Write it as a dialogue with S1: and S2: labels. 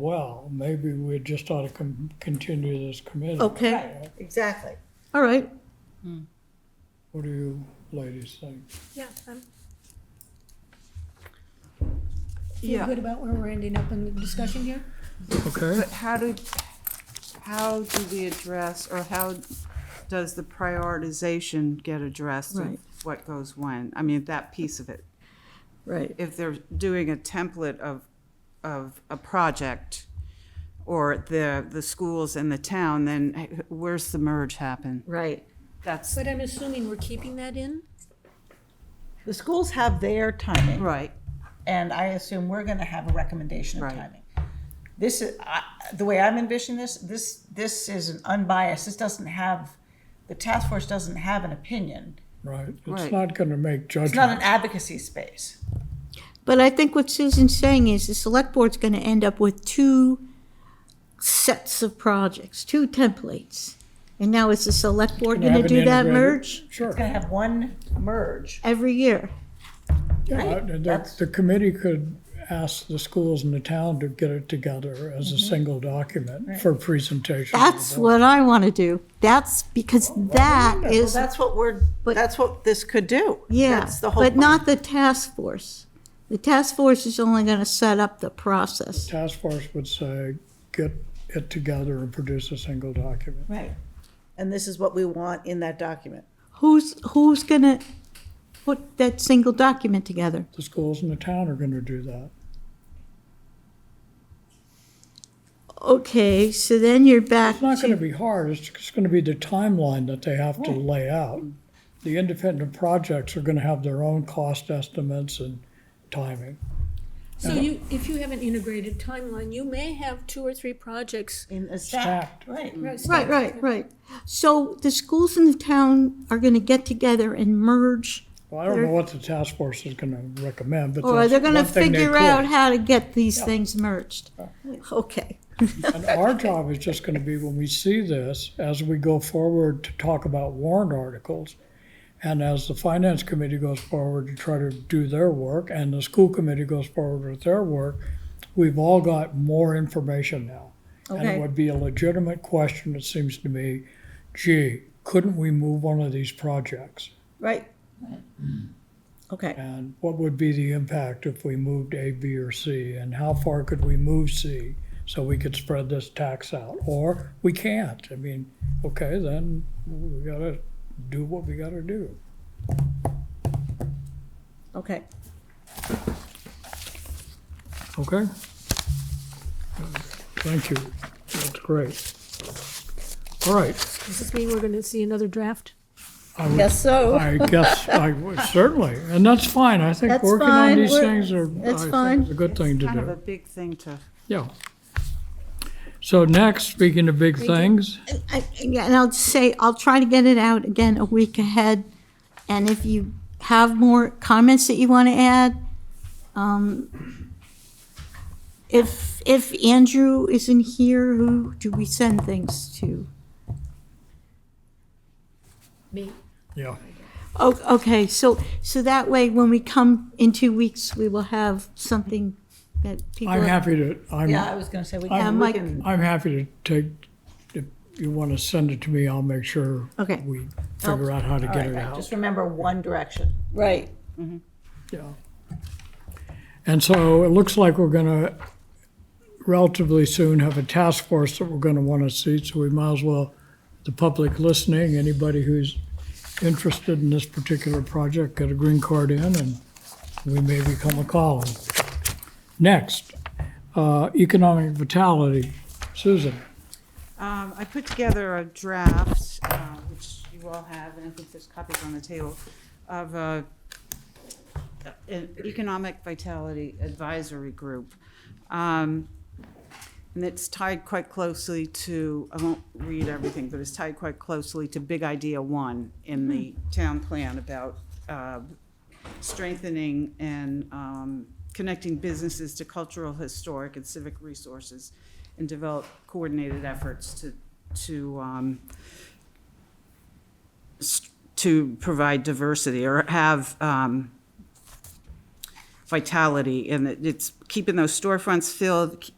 S1: well, maybe we just ought to con- continue this committee.
S2: Okay,
S3: Right, exactly.
S2: all right.
S1: What do you ladies think?
S4: Yeah, I'm
S2: Yeah.
S4: feel good about where we're ending up in the discussion here.
S1: Okay.
S5: But how do, how do we address, or how does the prioritization get addressed
S2: Right.
S5: of what goes when? I mean, that piece of it.
S2: Right,
S5: If they're doing a template of, of a project or the, the schools and the town, then where's the merge happen?
S2: right.
S5: That's,
S4: But I'm assuming we're keeping that in?
S3: The schools have their timing,
S5: right,
S3: and I assume we're gonna have a recommendation of
S5: Right.
S3: timing. This is, I- the way I'm envisioning this, this, this is an unbiased, this doesn't have, the task force doesn't have an opinion.
S1: Right, it's
S5: Right.
S1: not gonna make
S3: It's not an
S1: judgment.
S3: advocacy space.
S6: But I think what Susan's saying is the select board's gonna end up with two sets of projects, two templates. And now is the select board
S1: Can you have
S6: gonna do
S1: an
S6: that
S1: integrated-
S6: merge
S1: Sure.
S3: It's gonna have one merge.
S6: every year?
S1: Yeah, the- the,
S3: That's-
S1: the committee could ask the schools and the town to get it together as a single document for presentation. to the
S6: That's
S1: board.
S6: what I wanna do. That's, because that is,
S3: That's what we're,
S6: But-
S3: that's what this could do.
S6: yeah,
S3: That's the whole
S6: but
S3: point.
S6: not the task force. The task force is only gonna set up the process.
S1: Task force would say, get it together and produce a single document.
S3: Right. And this is what we want in that document.
S6: Who's, who's gonna put that single document together?
S1: The schools and the town are gonna do that.
S6: Okay, so then you're back
S1: It's not
S6: to
S1: gonna be hard, it's just gonna be the timeline that they have to lay out.
S6: Mm.
S1: The independent projects are gonna have their own cost estimates and timing.
S4: So you, if you have an integrated timeline, you may have two or three projects.
S3: In a stack,
S1: Stacked.
S3: right.
S6: Right, right, right. So the schools in the town are gonna get together and merge,
S1: Well, I don't know what the task force is gonna recommend, but
S6: or they're
S1: that's
S6: gonna
S1: one thing they
S6: figure out
S1: could.
S6: how to get these things merged. Okay,
S1: And our job is just gonna be when we see this, as we go forward to talk about warrant articles, and as the finance committee goes forward to try to do their work, and the school committee goes forward with their work, we've all got more information now. And it
S6: okay.
S1: would be a legitimate question, it seems to me, gee, couldn't we move one of these projects?
S6: Right. Okay,
S1: And what would be the impact if we moved A, B, or C? And how far could we move C so we could spread this tax out? Or we can't. I mean, okay, then we gotta do what we gotta do.
S6: okay.
S1: Okay? Thank you. That's great. All right.
S4: Does this mean we're gonna see another draft?
S1: I would
S6: Guess so.
S1: I guess, I, certainly, and that's fine, I think
S6: That's
S1: working on
S6: fine.
S1: these
S6: We're-
S1: things are, I
S6: that's
S1: think
S6: fine.
S1: is a good thing to
S5: kind of a
S1: do,
S5: big thing to.
S1: yeah. So next, speaking of big things,
S6: I- yeah, And I'll just say, I'll try to get it out again a week ahead, and if you have more comments that you wanna add, um, if, if Andrew isn't here, who do we send things to?
S4: Me.
S1: yeah,
S6: O- Okay, so, so that way, when we come in two weeks, we will have something that people.
S1: I'm happy to,
S3: Yeah, I
S1: I'm,
S3: was gonna say, we
S6: Yeah,
S3: can, we
S6: Mike.
S3: can,
S1: I'm happy to take, if you wanna send it to me, I'll make sure
S6: Okay,
S1: we figure out how to
S3: all
S1: get
S3: right,
S1: it
S3: right,
S1: out,
S3: just remember one direction.
S2: Right.
S1: yeah. And so it looks like we're gonna relatively soon have a task force that we're gonna wanna see, so we might as well the public listening, anybody who's interested in this particular project, get a green card in, and we may become a column. Next, uh, economic vitality. Susan,
S5: Um, I put together a draft, uh, which you all have, and I think there's copies on the table, of a, an economic vitality advisory group. Um, and it's tied quite closely to, I won't read everything, but it's tied quite closely to Big Idea One in the town plan about, uh, strengthening and um, connecting businesses to cultural, historic, and civic resources, and develop coordinated efforts to, to, um, s- to provide diversity or have um, vitality, and it- it's keeping those storefronts filled,